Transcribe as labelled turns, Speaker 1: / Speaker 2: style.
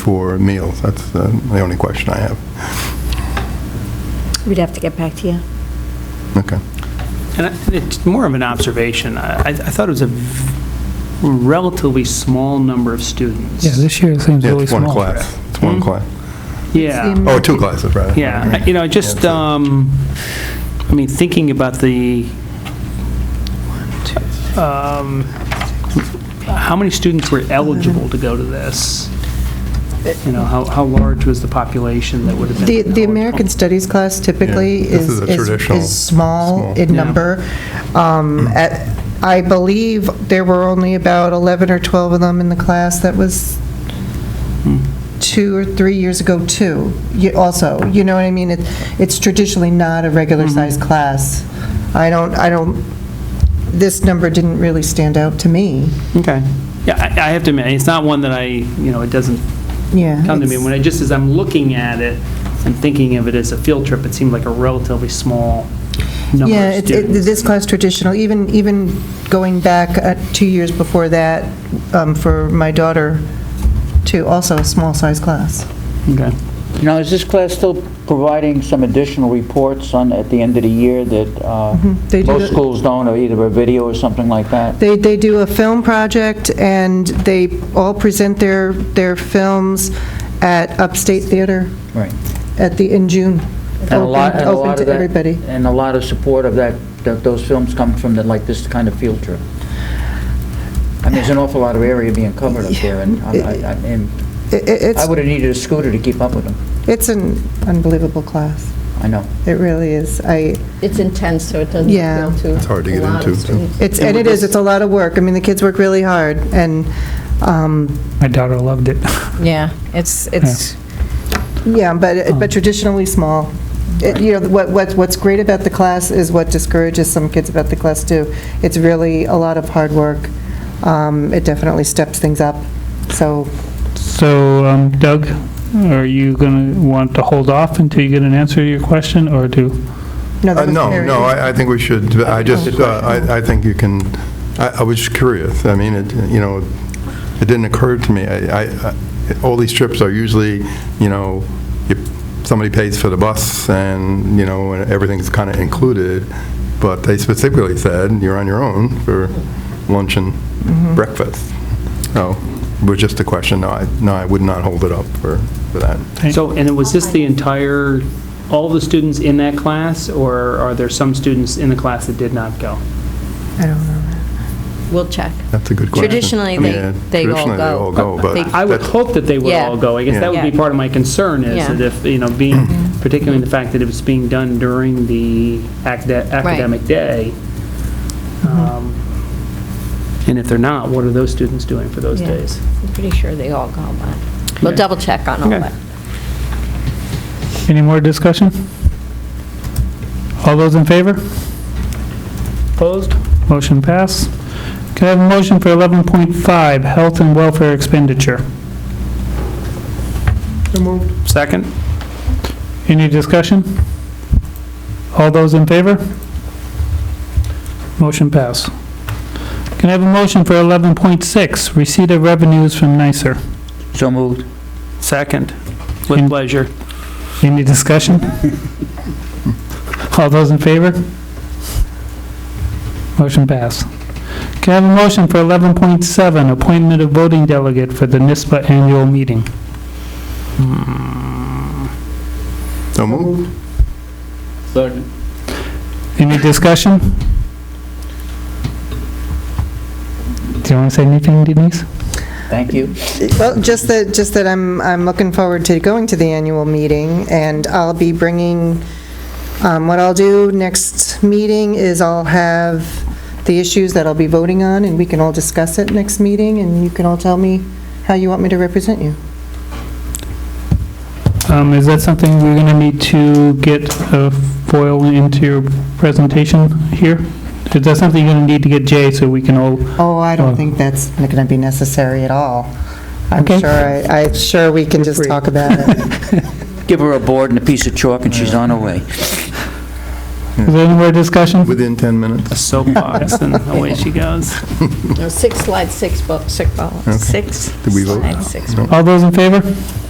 Speaker 1: for meals? That's uh, the only question I have.
Speaker 2: We'd have to get back to you.
Speaker 1: Okay.
Speaker 3: And I- it's more of an observation. I, I thought it was a relatively small number of students.
Speaker 4: Yeah, this year it seems
Speaker 1: Yeah,
Speaker 4: really
Speaker 1: it's
Speaker 4: small.
Speaker 1: one class. It's one
Speaker 3: Hmm?
Speaker 1: class.
Speaker 3: Yeah.
Speaker 1: Oh, two classes, rather.
Speaker 3: Yeah, you know, just, um, I mean, thinking about the, um, how many students were eligible to go to this? You know, how, how large was the population that would have been
Speaker 5: The,
Speaker 3: eligible?
Speaker 5: the American Studies class typically
Speaker 1: Yeah, this is
Speaker 5: is,
Speaker 1: a
Speaker 5: is
Speaker 1: traditional
Speaker 5: is small
Speaker 1: small. Mm.
Speaker 5: in
Speaker 3: Yeah.
Speaker 5: number. Um, at- I believe there were only about 11 or 12 of them in the class. That was
Speaker 1: Mm.
Speaker 5: two or three years ago, too, You- also. You know what I mean? It- It's traditionally not a
Speaker 1: Mm-hmm.
Speaker 5: regular-sized class. I don't, I don't, this number didn't really stand out to me.
Speaker 3: Okay. Yeah, I I have to admit, it's not one that I, you know, it doesn't
Speaker 5: Yeah.
Speaker 3: come to me.
Speaker 5: it's-
Speaker 3: When I, just as I'm looking at it and thinking of it as a field trip, it seemed like a relatively small number
Speaker 5: Yeah,
Speaker 3: of
Speaker 5: it- it-
Speaker 3: students.
Speaker 5: this class traditional, even, even going back uh, two years before that, um, for my daughter, too, also a small-size class.
Speaker 3: Okay.
Speaker 6: Now, is this class still providing some additional reports on, at the end of the year that uh,
Speaker 5: Mm-hmm. They do
Speaker 6: most
Speaker 5: the-
Speaker 6: schools don't, or either a video or something like that?
Speaker 5: They, they do a film project, and they all present their, their films at Upstate Theater
Speaker 6: Right.
Speaker 5: at the, in June.
Speaker 6: And a lot,
Speaker 5: Open-
Speaker 6: and a lot
Speaker 5: Open
Speaker 6: of
Speaker 5: to
Speaker 6: that-
Speaker 5: everybody.
Speaker 6: And a lot of support of that, that those films come from, the- like, this kind of field trip. I mean, there's an awful lot of area being covered up there, and I- I- I and
Speaker 5: I- i-
Speaker 6: I
Speaker 5: It's,
Speaker 6: would have needed a scooter to keep up with them.
Speaker 5: it's an unbelievable class.
Speaker 6: I know.
Speaker 5: It really is. I,
Speaker 7: It's intense, so it doesn't
Speaker 5: Yeah.
Speaker 7: appeal to
Speaker 1: It's hard to
Speaker 7: a
Speaker 1: get
Speaker 7: lot of
Speaker 1: into.
Speaker 7: students.
Speaker 5: it's,
Speaker 6: And
Speaker 5: and
Speaker 6: we
Speaker 5: it is,
Speaker 6: just-
Speaker 5: it's a lot of work. I mean, the kids work really hard, and, um,
Speaker 4: My daughter loved it.
Speaker 8: Yeah, it's, it's,
Speaker 5: Yeah,
Speaker 1: Um,
Speaker 5: but, but traditionally small. It- You know, what, what- what's great about the class is what discourages some kids about the class, too. It's really a lot of hard work. Um, It definitely steps things up, so.
Speaker 4: So um, Doug, are you going to want to hold off until you get an answer to your question, or do?
Speaker 5: that
Speaker 1: Uh,
Speaker 5: was
Speaker 1: No,
Speaker 5: very-
Speaker 1: no, I I think we should, I just, uh, I I think you can, I I was just curious. I mean, it, you know, it didn't occur to me. I, I- I- all these trips are usually, you know, you- somebody pays for the bus and, you know, and everything's kind of included, but they specifically said, you're on your own for lunch and
Speaker 8: Mm-hmm.
Speaker 1: breakfast. So, it was just a question, no, I, no, I would not hold it up for, for that.
Speaker 3: So, and was this the entire, all the students in that class, or are there some students in the class that did not go?
Speaker 5: I don't know.
Speaker 8: we'll check.
Speaker 1: That's a good question.
Speaker 8: Traditionally, they-
Speaker 1: Yeah,
Speaker 8: they all
Speaker 1: Traditionally, they
Speaker 8: go.
Speaker 1: all go,
Speaker 8: They-
Speaker 1: but.
Speaker 3: I would
Speaker 1: that's-
Speaker 3: hope that they would
Speaker 8: Yeah.
Speaker 3: all go. I guess that would be
Speaker 8: Yeah.
Speaker 3: part of my concern is
Speaker 8: Yeah.
Speaker 3: that if, you know, being, particularly the fact that it was being done during the acad- academic day. um, And if they're not, what are those students doing for those
Speaker 8: Yeah.
Speaker 3: days?
Speaker 8: I'm pretty sure they all go, but we'll
Speaker 3: Okay.
Speaker 8: double check on all
Speaker 3: Okay.
Speaker 8: that.
Speaker 4: Any more discussion? All those in favor?
Speaker 3: Opposed?
Speaker 4: Motion pass. Can I have a motion for 11.5, health and welfare expenditure?
Speaker 3: Second?
Speaker 4: Any discussion? All those in favor? Motion pass. Can I have a motion for 11.6, receipt of revenues from NICER?
Speaker 6: So moved.
Speaker 3: Second. With
Speaker 4: In-
Speaker 3: pleasure.
Speaker 4: Any discussion? All those in favor? Motion pass. Can I have a motion for 11.7, appointment of voting delegate for the NISBA annual meeting?
Speaker 1: So moved.
Speaker 4: Any discussion? Do you want to say anything, Denise?
Speaker 6: Thank you.
Speaker 5: Well, just that, just that I'm, I'm looking forward to going to the annual meeting, and I'll be bringing, um, what I'll do next meeting is I'll have the issues that I'll be voting on, and we can all discuss it next meeting, and you can all tell me how you want me to represent you.
Speaker 4: Um, Is that something we're going to need to get a foil into your presentation here? Is that something you're going to need to get Jay so we can all,
Speaker 5: Oh, I
Speaker 4: Oh.
Speaker 5: don't think that's going to be necessary at all. I'm
Speaker 4: Okay.
Speaker 5: sure, I- I'm sure we can just talk about it.
Speaker 6: Give her a board and a piece of chalk, and she's on her way.
Speaker 4: Is there any more discussion?
Speaker 1: within 10 minutes.
Speaker 3: a soapbox, and away she goes.
Speaker 8: No, six slides, six books, six,
Speaker 1: Okay.
Speaker 8: six
Speaker 1: Did we vote?
Speaker 8: slides, six
Speaker 1: No.
Speaker 4: All those in favor?